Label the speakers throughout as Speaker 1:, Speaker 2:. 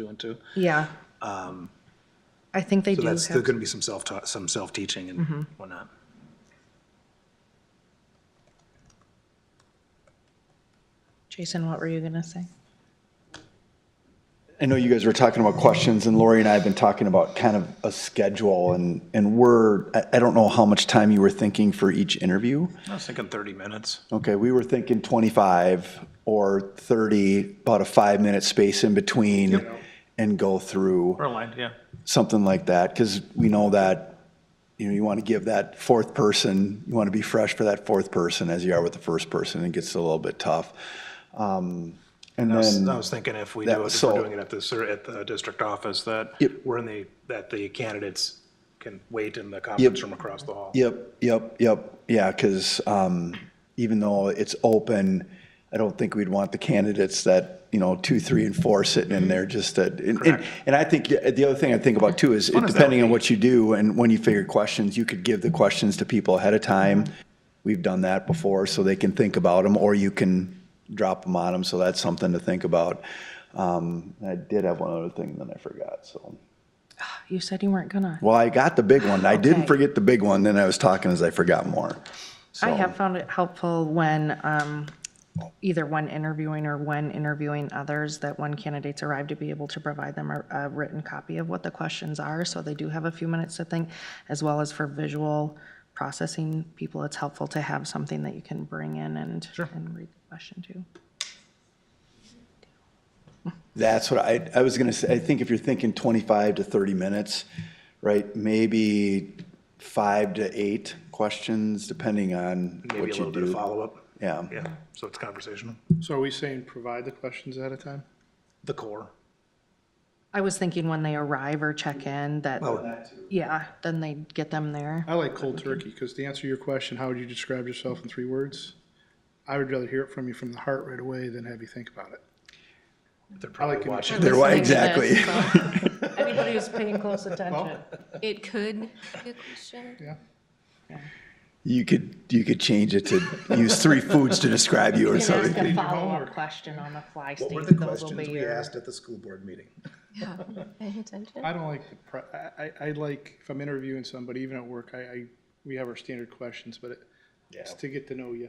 Speaker 1: doing too.
Speaker 2: Yeah. I think they
Speaker 1: Um, So
Speaker 2: do
Speaker 1: that's, there's
Speaker 2: have,
Speaker 1: gonna be some self-taught, some self-teaching and whatnot.
Speaker 2: Jason, what were you going to say?
Speaker 3: I know you guys were talking about questions, and Lori and I have been talking about kind of a schedule, and, and we're, I, I don't know how much time you were thinking for each interview.
Speaker 1: I was thinking thirty minutes.
Speaker 3: Okay, we were thinking 25 or 30, about a five-minute space in between, and go through
Speaker 1: We're aligned, yeah.
Speaker 3: something like that, because we know that, you know, you want to give that fourth person, you want to be fresh for that fourth person as you are with the first person, it gets a little bit tough. Um, And
Speaker 1: I was, I
Speaker 3: then,
Speaker 1: was thinking if we
Speaker 3: that-
Speaker 1: do, it- if we're
Speaker 3: so-
Speaker 1: doing it at the, cer- at the district office, that
Speaker 3: Yep.
Speaker 1: we're in the, that the candidates can wait in the conference room across the hall.
Speaker 3: yep, yep, yep, yeah, because even though it's open, I don't think we'd want the candidates that, you know, two, three, and four sitting in there just that. and- and- And I think, uh, the other thing I think about too is,
Speaker 1: as that
Speaker 3: depending on what you do and when you figure questions, you could give the questions to people ahead of time. We've done that before, so they can think about them, or you can drop them on them, so that's something to think about. Um, I did have one other thing, then I forgot, so.
Speaker 2: You said you weren't gonna.
Speaker 3: Well, I got the big one. I
Speaker 2: Okay.
Speaker 3: didn't forget the big one, then I was talking as I forgot more.
Speaker 2: I
Speaker 3: So-
Speaker 2: have found it helpful when, um, either when interviewing or when interviewing others, that when candidates arrive to be able to provide them a, a written copy of what the questions are, so they do have a few minutes to think, as well as for visual processing people, it's helpful to have something that you can bring in and, and read the question to.
Speaker 3: That's what I, I was gonna say, I think if you're thinking twenty-five to thirty minutes, right, maybe five to eight questions, depending on
Speaker 1: Maybe a
Speaker 3: what
Speaker 1: little
Speaker 3: you
Speaker 1: bit of
Speaker 3: do.
Speaker 1: follow-up.
Speaker 3: Yeah,
Speaker 1: Yeah, so it's conversational.
Speaker 4: So are we saying provide the questions ahead of time?
Speaker 1: The core.
Speaker 2: I was thinking when they arrive or check in, that, yeah, then they get them there.
Speaker 4: I like cold turkey, because to answer your question, how would you describe yourself in three words? I would rather hear it from you from the heart right away than have you think about it.
Speaker 1: They're
Speaker 4: I
Speaker 1: probably
Speaker 4: like
Speaker 1: watching.
Speaker 3: They're white,
Speaker 5: listening to
Speaker 3: exactly.
Speaker 5: this, so
Speaker 2: Anybody who's paying close attention.
Speaker 5: It could be a question.
Speaker 4: Yeah.
Speaker 3: You could, you could change it to use three foods to describe you or
Speaker 2: You can ask
Speaker 3: something.
Speaker 2: a follow-up question on the fly, Steve.
Speaker 1: What were the
Speaker 2: Those will
Speaker 1: questions
Speaker 2: be
Speaker 1: we
Speaker 2: your-
Speaker 1: asked at the school board meeting?
Speaker 5: Yeah, paying attention.
Speaker 4: I don't like, the pre- I, I- I like, if I'm interviewing somebody, even at work, I, I, we have our standard questions, but it- it's to get to know you.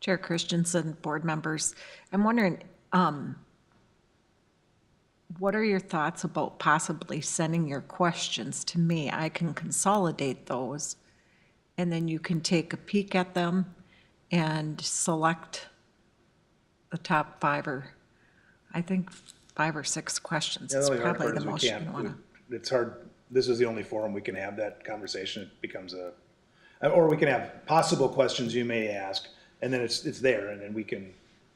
Speaker 6: Chair Christensen, board members, I'm wondering, um, what are your thoughts about possibly sending your questions to me? I can consolidate those, and then you can take a peek at them and select the top five or, I think, five or six questions
Speaker 1: Yeah,
Speaker 6: is
Speaker 1: only hard
Speaker 6: probably
Speaker 1: part
Speaker 6: the
Speaker 1: is we
Speaker 6: most you
Speaker 1: can't-
Speaker 6: want to.
Speaker 1: we- It's hard, this is the only forum we can have that conversation, it becomes a, uh, or we can have possible questions you may ask, and then it's, it's there, and then we can,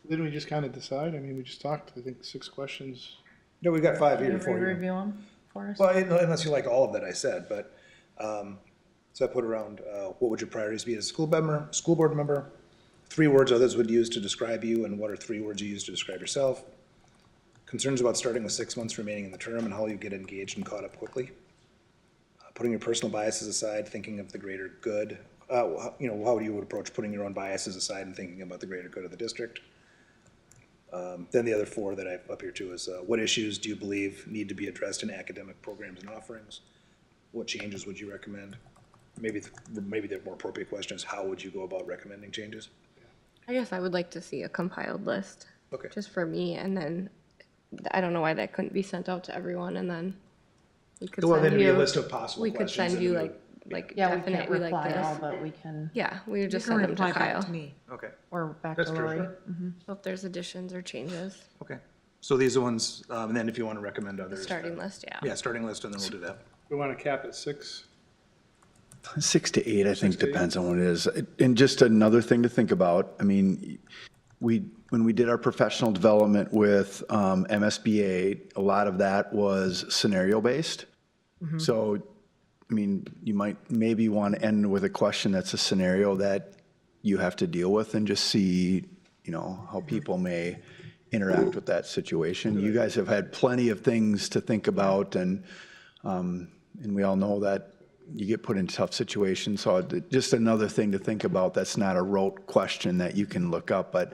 Speaker 4: Didn't we just kind of decide? I mean, we just talked, I think, six questions.
Speaker 1: no, we've got five here for you.
Speaker 2: Review them for us?
Speaker 1: Well, un- unless you like all of that I said, but, um, so I put around, uh, what would your priorities be as a school member, school board member? Three words others would use to describe you, and what are three words you use to describe yourself? Concerns about starting with six months remaining in the term and how you get engaged and caught up quickly? Uh, Putting your personal biases aside, thinking of the greater good, uh, wh- you know, how you would approach putting your own biases aside and thinking about the greater good of the district? Then the other four that I have up here too is, uh, what issues do you believe need to be addressed in academic programs and offerings? What changes would you recommend? Maybe, th- maybe the more appropriate question is, how would you go about recommending changes?
Speaker 5: I guess I would like to see a compiled list,
Speaker 1: Okay,
Speaker 5: just for me, and then, I don't know why that couldn't be sent out to everyone, and then we could
Speaker 1: well, then
Speaker 5: send
Speaker 1: it'd be a
Speaker 5: you,
Speaker 1: list of possible
Speaker 5: we could
Speaker 1: questions.
Speaker 5: send
Speaker 1: and
Speaker 5: you
Speaker 1: we
Speaker 5: like,
Speaker 1: would-
Speaker 5: like
Speaker 2: Yeah, we can't
Speaker 5: definite, we like
Speaker 2: reply all,
Speaker 5: this.
Speaker 2: but we can,
Speaker 5: Yeah, we would
Speaker 6: You
Speaker 5: just
Speaker 6: can
Speaker 5: send them
Speaker 6: reply
Speaker 5: to
Speaker 6: back
Speaker 5: Kyle.
Speaker 6: to me.
Speaker 1: Okay,
Speaker 2: or back to
Speaker 1: That's true.
Speaker 2: Lori.
Speaker 5: So if there's additions or changes,
Speaker 1: okay. So these are ones, um, and then if you want to recommend others.
Speaker 5: starting
Speaker 1: then-
Speaker 5: list, yeah.
Speaker 1: Yeah, starting list, and then we'll do that.
Speaker 4: We want to cap at six.
Speaker 3: Six to eight, I think,
Speaker 4: to eight.
Speaker 3: depends on what it is. And just another thing to think about, I mean, we, when we did our professional development with um, MSBA, a lot of that was scenario-based.
Speaker 4: Mm-hmm.
Speaker 3: So, I mean, you might, maybe want to end with a question that's a scenario that you have to deal with and just see, you know, how people may interact with that situation. You guys have had plenty of things to think about and, um, and we all know that you get put in tough uh, situations. So it- just another thing to think about, that's not a rote question that you can look up, but